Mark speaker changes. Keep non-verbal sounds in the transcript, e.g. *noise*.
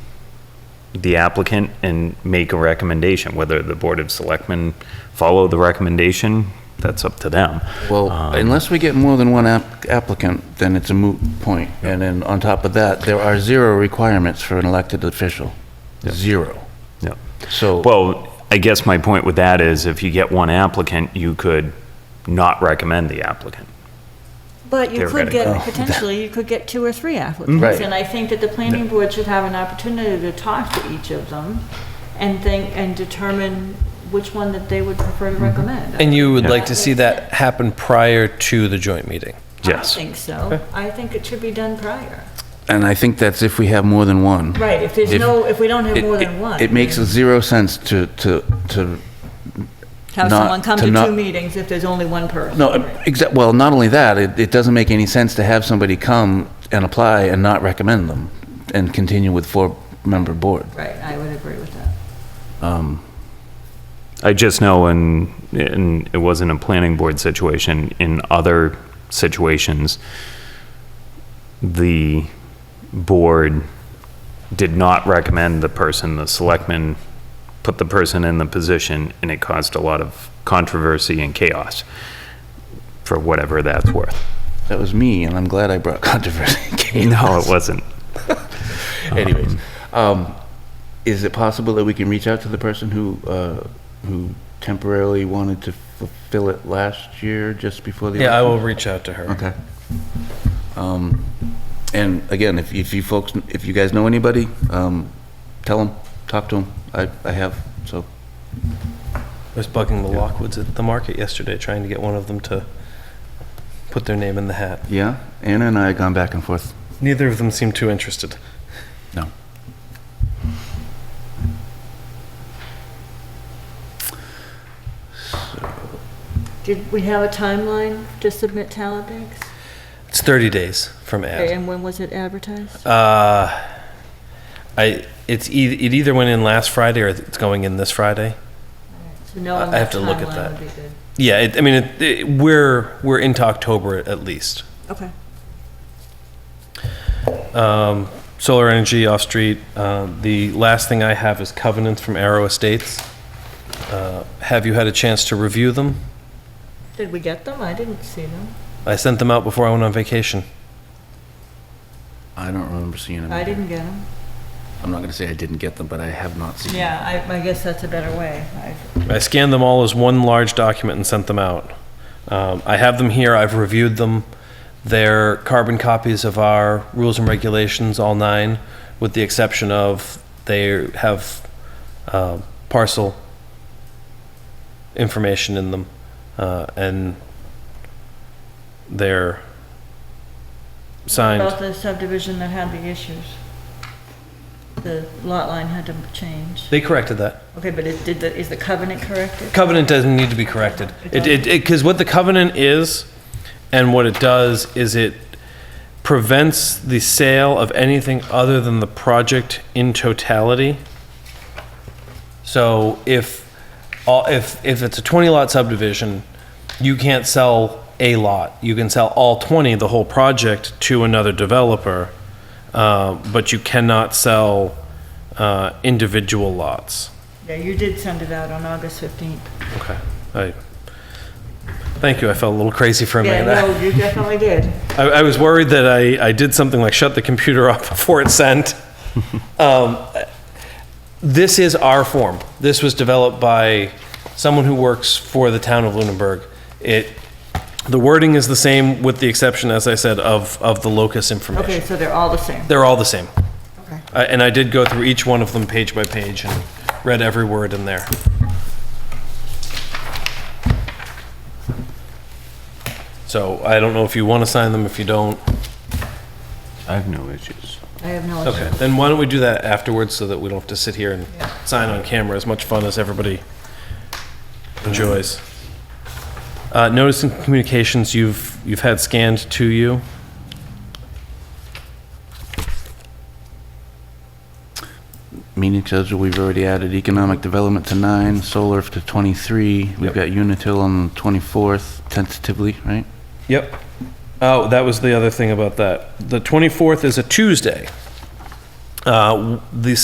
Speaker 1: the applicant and make a recommendation. Whether the Board of Selectmen follow the recommendation, that's up to them.
Speaker 2: Well,
Speaker 1: Um,
Speaker 2: unless we get more than one app- applicant, then it's a moot point. And then on top of that, there are zero requirements for an elected official. Zero.
Speaker 1: yeah.
Speaker 2: So,
Speaker 1: Well, I guess my point with that is if you get one applicant, you could not recommend the applicant.
Speaker 3: But
Speaker 1: They
Speaker 3: you
Speaker 1: were
Speaker 3: could
Speaker 1: gonna
Speaker 4: Oh,
Speaker 3: get, potentially, you could get two or three applicants.
Speaker 2: Right.
Speaker 3: And I think that the planning board should have an opportunity to talk to each of them and think, and determine which one that they would prefer to recommend.
Speaker 4: Mm-hmm. And you would
Speaker 1: Yeah.
Speaker 4: like to see that happen prior to the joint meeting?
Speaker 1: Yes.
Speaker 3: I think so. I think it should be done prior.
Speaker 2: and I think that's if we have more than one.
Speaker 3: Right, if there's no, if we don't have
Speaker 2: It-
Speaker 3: more
Speaker 2: it-
Speaker 3: than one.
Speaker 2: It makes zero sense to, to, to,
Speaker 3: Have
Speaker 2: not-
Speaker 3: someone come
Speaker 2: to
Speaker 3: to two
Speaker 2: not-
Speaker 3: meetings if there's only one person.
Speaker 2: no, exa, well, not only that, it, it doesn't make any sense to have somebody come and apply and not recommend them and continue with four-member board.
Speaker 3: Right, I would agree with that.
Speaker 2: Um,
Speaker 1: I just know in, in, it wasn't a planning board situation, in other situations, the board did not recommend the person, the selectmen put the person in the position, and it caused a lot of controversy and chaos, for whatever that's worth.
Speaker 2: That was me, and I'm glad I brought *laughs* controversy.
Speaker 1: No, it wasn't.
Speaker 4: Uh-huh.
Speaker 2: Anyways, um, is it possible that we can reach out to the person who, uh, who temporarily wanted to fulfill it last year, just before the?
Speaker 4: Yeah, I
Speaker 2: election?
Speaker 4: will reach out to her.
Speaker 2: Okay. Um, and again, if, if you folks, if you guys know anybody, um, tell them, talk to them. I, I have, so.
Speaker 4: I was bugging the Lockwoods at the market yesterday, trying to get one of them to put their name in the hat.
Speaker 2: Yeah, Anna and I have gone back and forth.
Speaker 4: Neither of them seemed too interested.
Speaker 2: No.
Speaker 3: Did we have a timeline to submit talent bids?
Speaker 4: It's 30 days from ad.
Speaker 3: And when was it advertised?
Speaker 4: Uh, I, it's, eith- it either went in last Friday or it's going in this Friday.
Speaker 3: So knowing
Speaker 4: I
Speaker 3: that
Speaker 4: have to look at
Speaker 3: timeline
Speaker 4: that.
Speaker 3: would be good.
Speaker 4: Yeah, it, I mean, it, it, we're, we're into October at least.
Speaker 3: Okay.
Speaker 4: Um, solar energy off street. Uh, the last thing I have is covenants from Arrow Estates. Uh, have you had a chance to review them?
Speaker 3: Did we get them? I didn't see them.
Speaker 4: I sent them out before I went on vacation.
Speaker 2: I don't remember seeing them.
Speaker 3: I didn't get them.
Speaker 2: I'm not gonna say I didn't get them, but I have not seen them.
Speaker 3: Yeah, I, I guess that's a better way. I-
Speaker 4: I scanned them all as one large document and sent them out. Um, I have them here. I've reviewed them. They're carbon copies of our rules and regulations, all nine, with the exception of they have uh, parcel information in them, uh, and they're signed.
Speaker 3: About the subdivision that had the issues. The lot line had to change.
Speaker 4: They corrected that.
Speaker 3: Okay, but it, did the, is the covenant corrected?
Speaker 4: covenant doesn't need to be corrected. It, it, because what the covenant is, and what it does, is it prevents the sale of anything other than the project in totality. So if, all- if, if it's a 20 lot subdivision, you can't sell a lot. You can sell all 20, the whole project, to another developer, uh, but you cannot sell uh, individual lots.
Speaker 3: Yeah, you did send it out on August 15th.
Speaker 4: Okay. I, thank you. I felt a little crazy for a
Speaker 3: Yeah,
Speaker 4: minute.
Speaker 3: no, you definitely did.
Speaker 4: *laughs* I, I was worried that I, I did something like shut the computer *laughs* off before it
Speaker 3: *laughs*
Speaker 4: sent. um, this is our form. This was developed by someone who works for the town of Lunenburg. It, the wording is the same with the exception, as I said, of, of the locus information.
Speaker 3: Okay, so they're all the same.
Speaker 4: They're all the same.
Speaker 3: Okay.
Speaker 4: I- And I did go through each one of them page by page and read every word in there. So I don't know if you want to sign them, if you don't.
Speaker 1: I have no issues.
Speaker 3: I have no
Speaker 4: Okay,
Speaker 3: idea.
Speaker 4: then why don't we do that afterwards so that we don't have to sit here and sign on camera, as much fun as everybody enjoys. Uh, notice and communications you've, you've had scanned to you.
Speaker 2: Meeting schedule, we've already added economic development to nine, solar to 23. We've
Speaker 4: Yep.
Speaker 2: got Unitil on the 24th tentatively, right?
Speaker 4: Yep. Oh, that was the other thing about that. The 24th is a Tuesday. Uh, w- The